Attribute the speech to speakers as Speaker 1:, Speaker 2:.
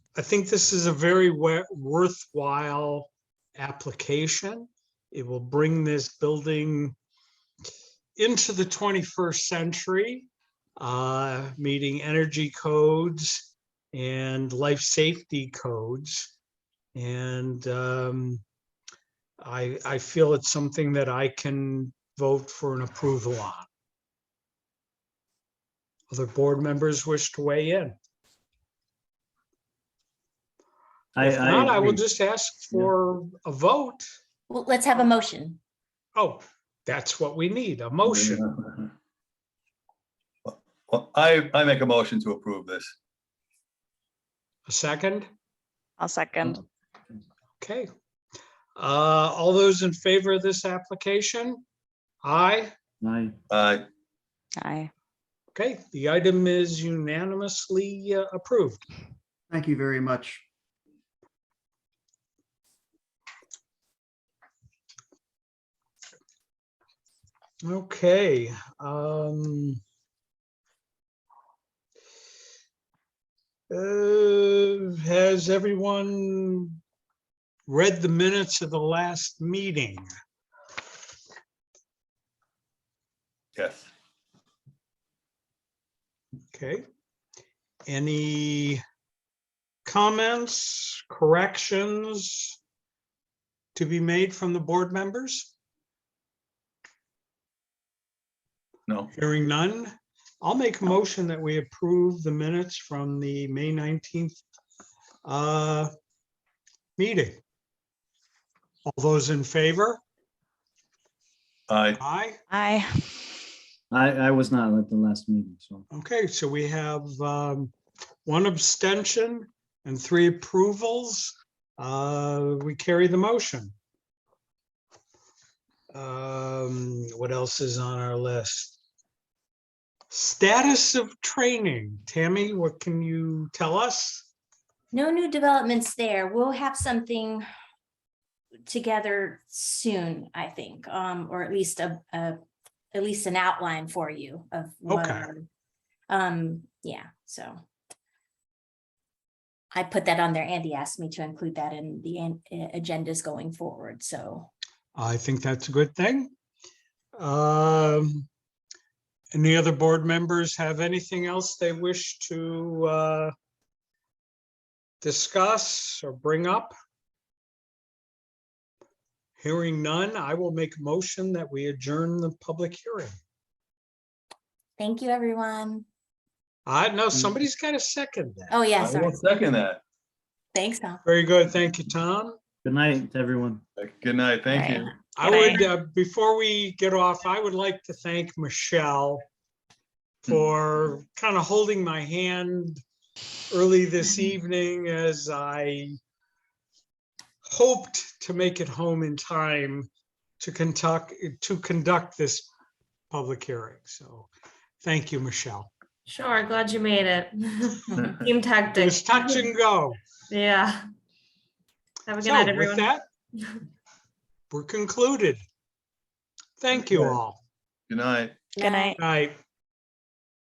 Speaker 1: I think this is a very wa- worthwhile application. It will bring this building into the 21st century, uh, meeting energy codes and life safety codes. And um, I, I feel it's something that I can vote for an approval on. Other board members wish to weigh in.
Speaker 2: I,
Speaker 1: If not, I
Speaker 2: I
Speaker 1: will
Speaker 2: agree.
Speaker 1: just ask for a vote.
Speaker 3: Well, let's have a motion.
Speaker 1: Oh, that's what we need, a motion.
Speaker 4: Well, I, I make a motion to approve this.
Speaker 1: A second?
Speaker 5: I'll second.
Speaker 1: Okay. Uh, all those in favor of this application? Aye.
Speaker 2: Aye.
Speaker 4: I,
Speaker 5: Aye.
Speaker 1: Okay, the item is unanimously uh, approved.
Speaker 6: Thank you very much.
Speaker 1: Okay, um. uh, has everyone read the minutes of the last meeting?
Speaker 4: yes.
Speaker 1: Okay. Any comments, corrections to be made from the board members?
Speaker 4: No,
Speaker 1: Hearing none, I'll make a motion that we approve the minutes from the May 19th uh, meeting. All those in favor?
Speaker 4: I,
Speaker 1: Aye.
Speaker 5: Aye.
Speaker 2: I, I was not at the last meeting, so.
Speaker 1: Okay, so we have um, one abstention and three approvals. Uh, We carry the motion. Um, What else is on our list? Status of training. Tammy, what can you tell us?
Speaker 3: No new developments there. We'll have something together soon, I think, um, or at least a, a, at least an outline for you of. what,
Speaker 1: Okay.
Speaker 3: Um, yeah, so. I put that on there. Andy asked me to include that in the an- uh, agendas going forward, so.
Speaker 1: I think that's a good thing. Um, Any other board members have anything else they wish to uh, discuss or bring up? Hearing none, I will make a motion that we adjourn the public hearing.
Speaker 3: Thank you, everyone.
Speaker 1: I know somebody's got a second. that.
Speaker 3: Oh, yeah,
Speaker 4: I
Speaker 3: sorry.
Speaker 4: will second that.
Speaker 3: Thanks, Tom.
Speaker 1: Very good. Thank you, Tom.
Speaker 2: Good night, everyone.
Speaker 4: Good night, thank you.
Speaker 1: I
Speaker 5: Can I-
Speaker 1: would, uh, before we get off, I would like to thank Michelle for kind of holding my hand early this evening as I hoped to make it home in time to conduct, to conduct this public hearing. So thank you, Michelle.
Speaker 7: Sure, glad you made it. Team
Speaker 1: It
Speaker 7: tactic,
Speaker 1: was touch and go.
Speaker 7: yeah. Have a good
Speaker 1: So
Speaker 7: night,
Speaker 1: with
Speaker 7: everyone.
Speaker 1: that, we're concluded. Thank you all.
Speaker 4: Good night.
Speaker 5: Good night.
Speaker 1: Night.